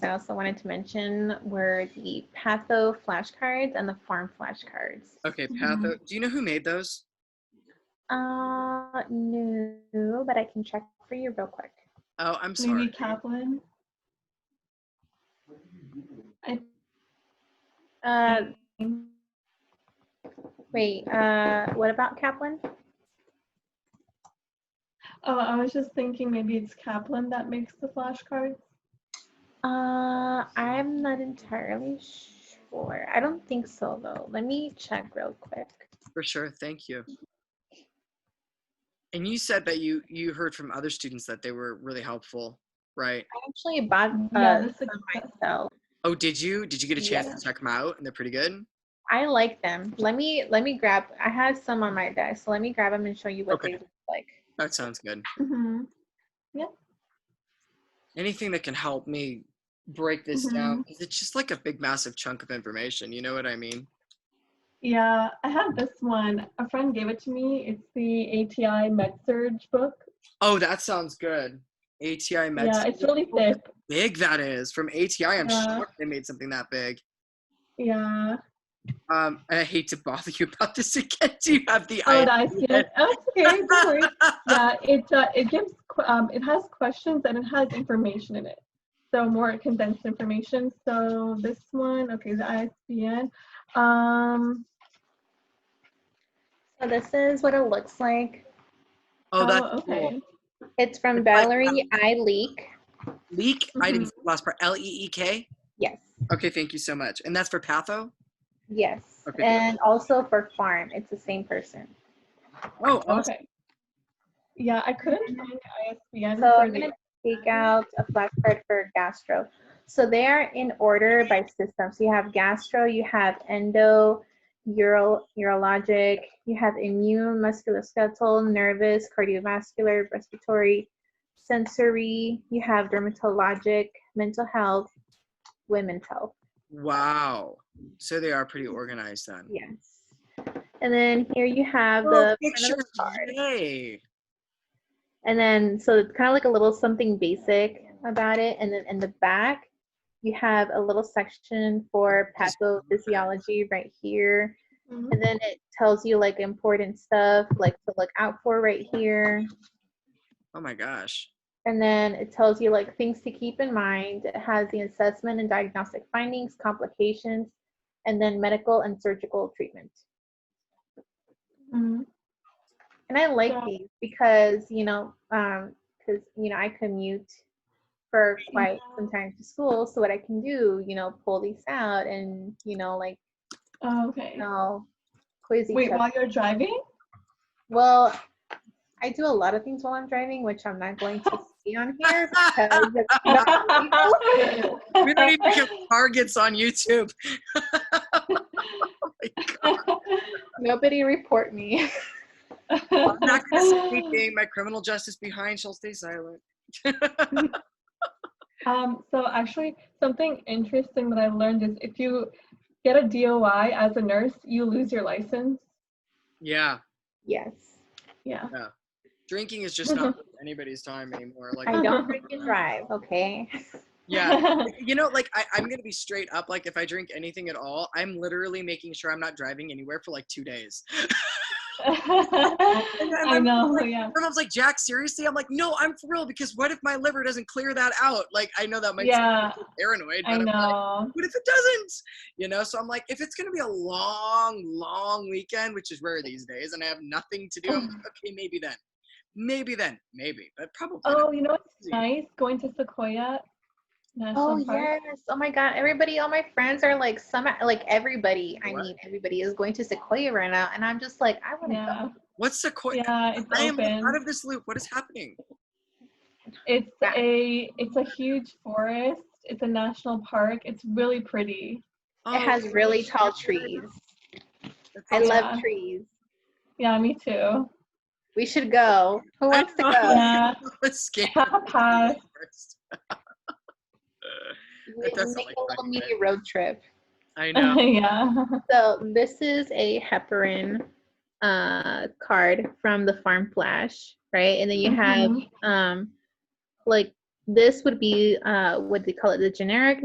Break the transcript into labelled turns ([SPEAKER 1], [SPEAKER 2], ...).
[SPEAKER 1] I also wanted to mention were the patho flashcards and the farm flashcards.
[SPEAKER 2] Okay,
[SPEAKER 3] Mm-hmm.
[SPEAKER 2] Patho. Do you know who made those?
[SPEAKER 1] Uh, no, but I can check for you real quick.
[SPEAKER 2] Oh, I'm
[SPEAKER 3] Maybe
[SPEAKER 2] sorry.
[SPEAKER 3] Kaplan?
[SPEAKER 1] Uh,
[SPEAKER 3] Mm.
[SPEAKER 1] wait. Uh, what about Kaplan?
[SPEAKER 3] Oh, I was just thinking maybe it's Kaplan that makes the flashcards.
[SPEAKER 1] Uh, I'm not entirely sure. I don't think so though. Let me check real quick.
[SPEAKER 2] For sure. Thank you. And you said that you you heard from other students that they were really helpful, right?
[SPEAKER 1] I actually bought
[SPEAKER 3] yeah,
[SPEAKER 1] uh,
[SPEAKER 3] that's the
[SPEAKER 1] some myself.
[SPEAKER 2] Oh, did you? Did you get a chance
[SPEAKER 1] Yeah.
[SPEAKER 2] to check them out? And they're pretty good.
[SPEAKER 1] I like them. Let me let me grab. I have some on my desk, so let me grab them and show you what
[SPEAKER 2] Okay.
[SPEAKER 1] they look like.
[SPEAKER 2] That sounds good.
[SPEAKER 3] Mhm.
[SPEAKER 2] Anything that can help me break this
[SPEAKER 3] Mm-hmm.
[SPEAKER 2] down. 'cause It's just like a big, massive chunk of information. You know what I mean?
[SPEAKER 3] Yeah, I have this one. A friend gave it to me. It's the ATI MedSurge book.
[SPEAKER 2] Oh, that sounds good. ATI Med.
[SPEAKER 3] yeah, it's really thick.
[SPEAKER 2] big that is from ATI. I'm
[SPEAKER 3] Yeah.
[SPEAKER 2] shocked they made something that big.
[SPEAKER 3] Yeah.
[SPEAKER 2] Um, and I hate to bother you about this again. Do you have the
[SPEAKER 3] Oh,
[SPEAKER 2] idea?
[SPEAKER 3] I see it. Oh, it's okay. Don't worry. yeah, it uh, it gives que- um, it has questions and it has information in it. So more condensed information. So this one, okay, the ISBN. Um,
[SPEAKER 1] So this is what it looks like.
[SPEAKER 2] Oh, that's
[SPEAKER 3] okay.
[SPEAKER 2] cool.
[SPEAKER 1] It's from
[SPEAKER 2] It's like-
[SPEAKER 1] Valerie I Leak.
[SPEAKER 2] Leak. I didn't see the last part. L E E K.
[SPEAKER 1] Yes.
[SPEAKER 2] Okay, thank you so much. And that's for Patho.
[SPEAKER 1] Yes.
[SPEAKER 2] Okay, good.
[SPEAKER 1] and also for farm, it's the same person.
[SPEAKER 2] Oh, awesome.
[SPEAKER 3] Okay. Yeah, I
[SPEAKER 2] Mm-hmm.
[SPEAKER 3] couldn't find the ISBN.
[SPEAKER 1] So
[SPEAKER 3] for
[SPEAKER 1] I'm
[SPEAKER 3] the-
[SPEAKER 1] gonna take out a flashcard for gastro. So they are in order by system. So you have gastro, you have endo, uro, urologic, you have immune, musculoskeletal, nervous, cardiovascular, respiratory, sensory, you have dermatologic, mental health, women's health.
[SPEAKER 2] wow. So they are pretty organized then.
[SPEAKER 1] Yes. And then here you have
[SPEAKER 2] Oh,
[SPEAKER 1] the front of the
[SPEAKER 2] pictures.
[SPEAKER 1] card.
[SPEAKER 2] Yay.
[SPEAKER 1] And then, so it's kind of like a little something basic about it. And then in the back, you have a little section for pathophysiology right here.
[SPEAKER 3] Mhm.
[SPEAKER 1] And then it tells you like important stuff, like to look out for right here.
[SPEAKER 2] Oh my gosh.
[SPEAKER 1] And then it tells you like things to keep in mind. It has the assessment and diagnostic findings, complications, and then medical and surgical treatment.
[SPEAKER 3] Mhm.
[SPEAKER 1] And I like
[SPEAKER 3] Yeah.
[SPEAKER 1] these because, you know, um, because, you know, I commute for
[SPEAKER 3] Mm-hmm.
[SPEAKER 1] quite some time to school. So what I can do, you know, pull these out and, you know, like,
[SPEAKER 3] Oh, okay.
[SPEAKER 1] you know, quiz each
[SPEAKER 3] Wait,
[SPEAKER 1] other.
[SPEAKER 3] while you're driving?
[SPEAKER 1] Well, I do a lot of things while I'm driving, which I'm not going to see on here because it's not legal.
[SPEAKER 2] We don't even have targets on YouTube.
[SPEAKER 1] nobody report me.
[SPEAKER 2] I'm not going to speak being my criminal justice behind shall stay silent.
[SPEAKER 3] Um, so actually, something interesting that I learned is if you get a DOI as a nurse, you lose your license.
[SPEAKER 2] Yeah.
[SPEAKER 1] Yes.
[SPEAKER 3] Yeah.
[SPEAKER 2] Drinking is just not worth anybody's time anymore. Like,
[SPEAKER 1] I don't drink and drive, okay?
[SPEAKER 2] yeah. you know like I, i'm gonna be straight up like if i drink anything at all i'm literally making sure i'm not driving anywhere for like two days
[SPEAKER 3] I know. Yeah.
[SPEAKER 2] and i was like jack seriously i'm like no i'm for real because what if my liver doesn't clear that out like i know that might sound
[SPEAKER 3] Yeah.
[SPEAKER 2] paranoid but
[SPEAKER 3] I
[SPEAKER 2] i'm like
[SPEAKER 3] know.
[SPEAKER 2] what if it doesn't you know so i'm like if it's gonna be a long long weekend which is rare these days and i have nothing to do I'm like, okay maybe then maybe then maybe but probably not.
[SPEAKER 3] Oh, you know what's nice? Going to Sequoia
[SPEAKER 1] Oh
[SPEAKER 3] National Park.
[SPEAKER 1] yes! Oh my God! Everybody, all my friends are like some, like everybody. I
[SPEAKER 2] What?
[SPEAKER 1] mean, everybody is going to Sequoia right now, and I'm just like, I want to
[SPEAKER 3] Yeah.
[SPEAKER 2] what's the qu-
[SPEAKER 3] Yeah. It's
[SPEAKER 2] i am
[SPEAKER 3] open.
[SPEAKER 2] out of this loop what is happening
[SPEAKER 3] It's
[SPEAKER 1] Yeah.
[SPEAKER 3] a it's a huge forest. It's a national park. It's really pretty.
[SPEAKER 1] go. It has
[SPEAKER 2] Oh,
[SPEAKER 1] really tall
[SPEAKER 2] shit.
[SPEAKER 1] trees.
[SPEAKER 2] That
[SPEAKER 1] I
[SPEAKER 2] sounds
[SPEAKER 1] love
[SPEAKER 3] Yeah.
[SPEAKER 1] trees.
[SPEAKER 3] Yeah, me too.
[SPEAKER 1] We should go.
[SPEAKER 2] Oh,
[SPEAKER 1] Who wants to go?
[SPEAKER 3] Yeah.
[SPEAKER 2] Scared.
[SPEAKER 3] Half past.
[SPEAKER 1] We
[SPEAKER 2] That does sound
[SPEAKER 1] make
[SPEAKER 2] like
[SPEAKER 1] a little
[SPEAKER 2] fun,
[SPEAKER 1] mini road trip.
[SPEAKER 2] I know.
[SPEAKER 3] yeah.
[SPEAKER 1] So this is a heparin uh,
[SPEAKER 2] Mm-hmm.
[SPEAKER 1] card from the Farm Flash, right? And then you have um, like This would be uh, what they call it, the generic